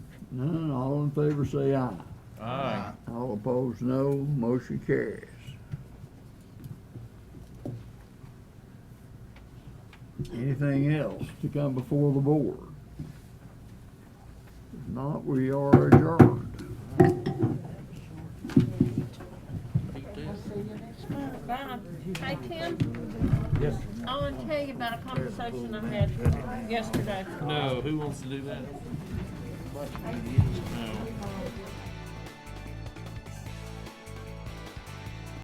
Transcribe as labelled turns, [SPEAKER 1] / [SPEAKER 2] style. [SPEAKER 1] None, all in favor say aye.
[SPEAKER 2] Aye.
[SPEAKER 1] All opposed, no. Motion carries. Anything else to come before the board? If not, we are adjourned.
[SPEAKER 3] Bye. Hey, Tim?
[SPEAKER 2] Yes.
[SPEAKER 3] I want to tell you about a conversation I had yesterday.
[SPEAKER 2] No, who wants to do that? No.